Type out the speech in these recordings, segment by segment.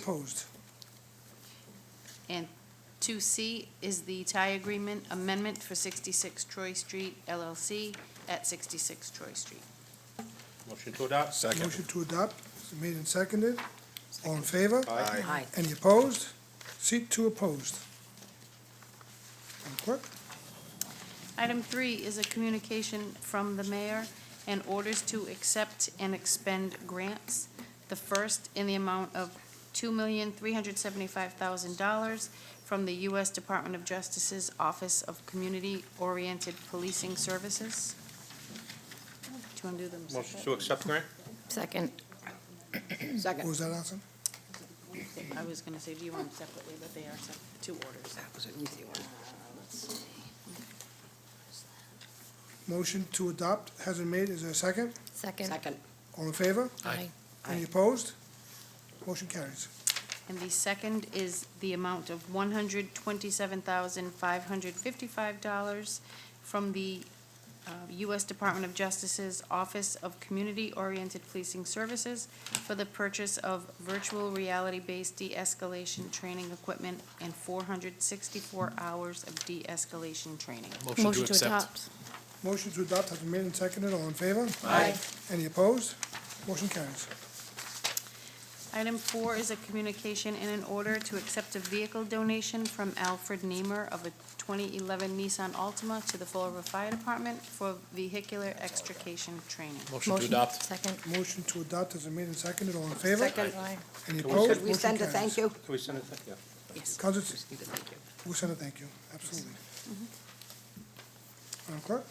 Opposed. And 2C is the tie agreement amendment for 66 Troy Street LLC at 66 Troy Street. Motion to adopt? Motion to adopt is made and seconded. All in favor? Aye. Aye. Any opposed? Seat two opposed. Madam Clerk? Item 3 is a communication from the mayor and orders to accept and expend grants. The first in the amount of $2,375,000 from the U.S. Department of Justice's Office of Community-Oriented Policing Services. Do you want to do them? Motion separate? to accept grant? Second. What Second. was that, Allison? I was going to say, do you want them separately, but they are sep- two orders. That was an easy one. Motion to adopt has been made. Is there a second? Second. Second. All in favor? Aye. Any Aye. opposed? Motion carries. And the second is the amount of one hundred twenty-seven thousand five hundred fifty-five dollars from the uh, U.S. Department of Justice's Office of Community-Oriented Policing Services for the purchase of virtual reality-based de-escalation training equipment and four hundred sixty-four hours of de-escalation training. Motion to adopt. Motion to adopt has been made and seconded. All in favor? Aye. Any opposed? Motion carries. Item four is a communication and an order to accept a vehicle donation from Alfred Niemer of a 2011 Nissan Altima to the Fall River Fire Department for vehicular extrication training. Motion to adopt? Second. Motion to adopt has been made and seconded. All in favor? Second. Aye. Any we- opposed? Could we send a thank you? Can we send it? Yeah. Yes. Counselor, Thank you. we'll send a thank you. Absolutely. Mm-hmm. Madam Clerk?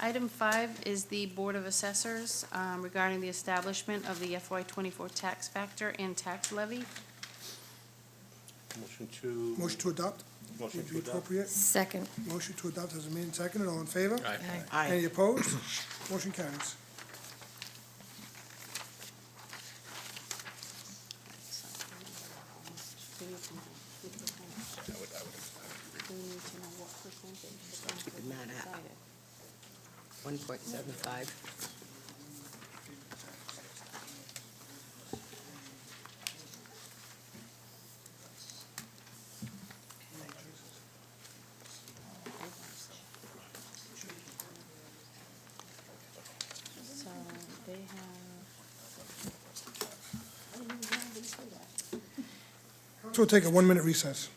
Item five is the Board of Assessors um, regarding the establishment of the FY '24 tax factor and tax levy. Motion to? Motion to adopt? Motion would to be adopt? appropriate. Second. Motion to adopt has been made and seconded. All in favor? Aye. Any opposed? Motion carries. One point seven five. So they have, So we'll take a one-minute recess.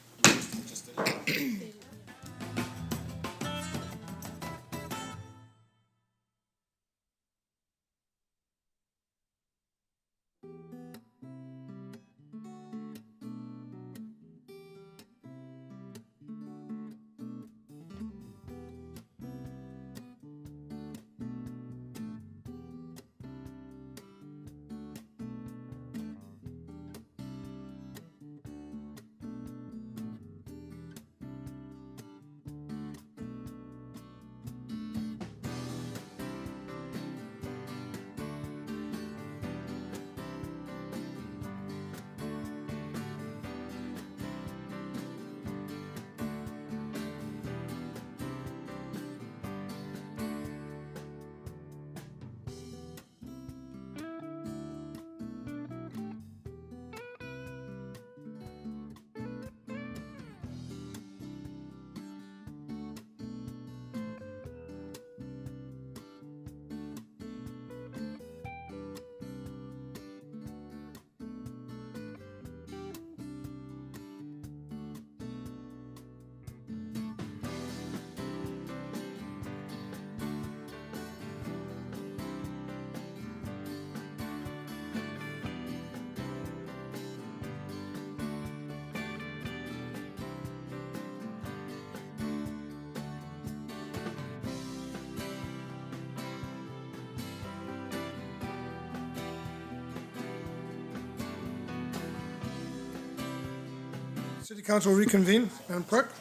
City Council reconvene. Madam Clerk?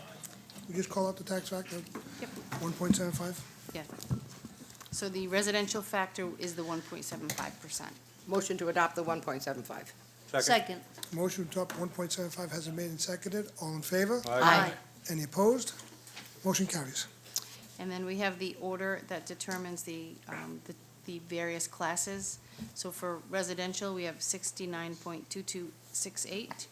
We just call out the tax factor, yep, one point seven five. yeah. So the residential factor is the 1.75%. Motion to adopt the one point seven five. Second? Motion to adopt one point seven five has been made and seconded. All in favor? Aye. Any opposed? Motion carries. And then we have the order that determines the, um, the- the various classes. So for residential, we have sixty-nine point two-two six eight